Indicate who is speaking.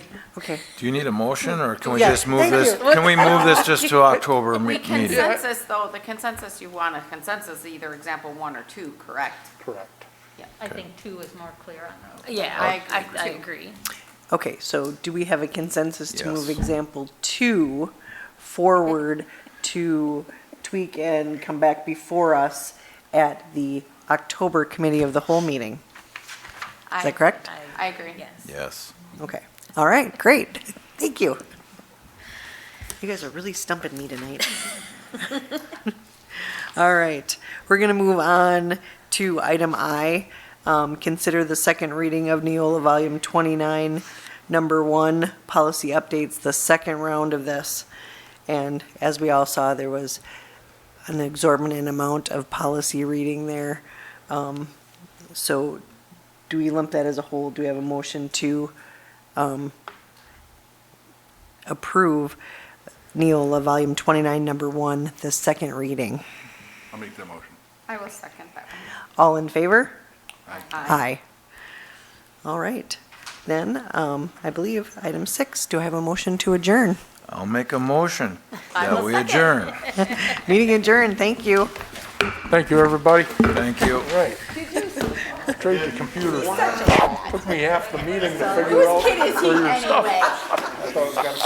Speaker 1: Okay.
Speaker 2: Do you need a motion, or can we
Speaker 1: Yeah,
Speaker 2: just move
Speaker 1: thank
Speaker 2: this,
Speaker 1: you.
Speaker 2: can we move this just to October me-
Speaker 3: The
Speaker 2: meeting?
Speaker 3: consensus, though, the consensus, you want a consensus, either example one or two, correct?
Speaker 4: Correct.
Speaker 5: I think two is more clear on those.
Speaker 6: Yeah,
Speaker 3: I
Speaker 6: I,
Speaker 3: agree,
Speaker 6: I
Speaker 3: too.
Speaker 6: agree.
Speaker 1: Okay, so do we have a consensus to move
Speaker 2: Yes.
Speaker 1: example two forward to tweak and come back before us at the October committee of the whole meeting? Is that correct?
Speaker 3: I agree.
Speaker 6: Yes.
Speaker 2: Yes.
Speaker 1: Okay, all right, great, thank you. You guys are really stumping me tonight. All right, we're gonna move on to item I. Um, consider the second reading of Neola Volume twenty-nine, number one, policy updates, the second round of this. And as we all saw, there was an exorbitant amount of policy reading there. Um, so do we lump that as a whole? Do we have a motion to um, approve Neola Volume 29, Number 1, the second reading?
Speaker 4: I'll make that motion.
Speaker 3: I will second that one.
Speaker 1: All in favor?
Speaker 3: Aye.
Speaker 1: Aye. All right. Then, um, I believe, item 6, do I have a motion to adjourn?
Speaker 2: I'll make a motion that
Speaker 6: will
Speaker 2: we
Speaker 6: second.
Speaker 2: adjourn.
Speaker 1: Meeting adjourned, thank you.
Speaker 4: Thank you, everybody.
Speaker 2: Thank you.
Speaker 4: Right. Trade the computers. Took me half the meeting to figure out.
Speaker 3: It is he anyway.